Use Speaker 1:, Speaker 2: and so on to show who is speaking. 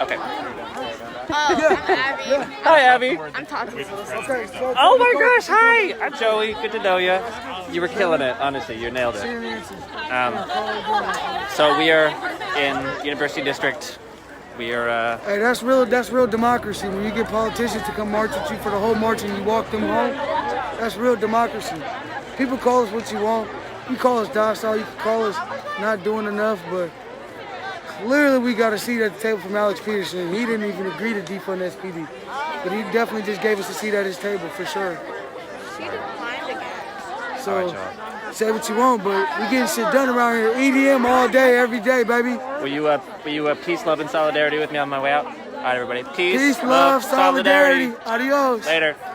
Speaker 1: Okay.
Speaker 2: Oh, I'm Abby.
Speaker 1: Hi, Abby.
Speaker 2: I'm talking to this.
Speaker 3: Okay, so
Speaker 1: Oh my gosh, hi! I'm Joey. Good to know you. You were killing it, honestly. You nailed it. Um, so we are in University District. We are. Uh,
Speaker 3: Hey, that's real. That's real democracy. When you get politicians to come march with you for the whole march and you walk them home, that's real democracy. People call us what you want. You call us docile. You can call us not doing enough, but clearly we got a seat at the table from Alex Peterson. He didn't even agree to defund SPD, but he definitely just gave us a seat at his table for sure.
Speaker 2: She declined again.
Speaker 1: all
Speaker 3: So
Speaker 1: right, y'all.
Speaker 3: say what you want, but we getting shit done around here. EDM all day, every day, baby.
Speaker 1: Will you uh, will you uh, peace, love, and solidarity with me on my way out? All right, everybody. Peace,
Speaker 3: Peace, love, solidarity.
Speaker 1: solidarity.
Speaker 3: Adios.
Speaker 1: Later.